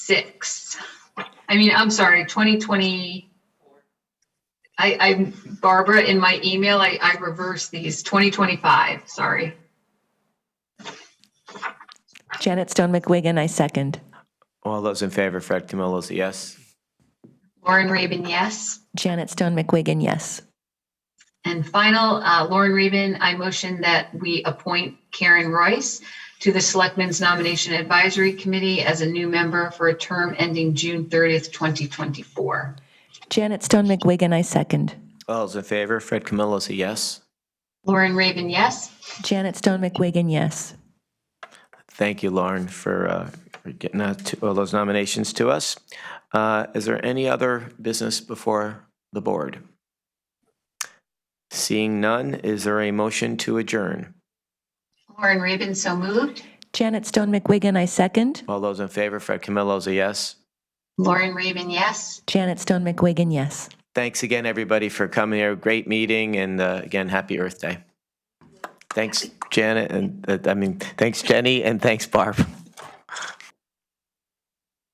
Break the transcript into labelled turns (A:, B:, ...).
A: six. I mean, I'm sorry, twenty twenty. I, I, Barbara, in my email, I, I reversed these, twenty twenty-five, sorry.
B: Janet Stone McWiggin, I second.
C: All those in favor, Fred Camillo is a yes.
A: Lauren Raven, yes.
B: Janet Stone McWiggin, yes.
A: And final, uh, Lauren Raven, I motion that we appoint Karen Royce to the Selectmen's Nomination Advisory Committee as a new member for a term ending June 30th, 2024.
B: Janet Stone McWiggin, I second.
C: All those in favor, Fred Camillo is a yes.
A: Lauren Raven, yes.
B: Janet Stone McWiggin, yes.
C: Thank you, Lauren, for uh, for getting that to- all those nominations to us. Uh, Is there any other business before the board? Seeing none, is there a motion to adjourn?
A: Lauren Raven, so moved.
B: Janet Stone McWiggin, I second.
C: All those in favor, Fred Camillo is a yes.
A: Lauren Raven, yes.
B: Janet Stone McWiggin, yes.
C: Thanks again, everybody, for coming here. Great meeting, and uh, again, happy Earth Day. Thanks, Janet, and, uh, I mean, thanks, Jenny, and thanks, Barb.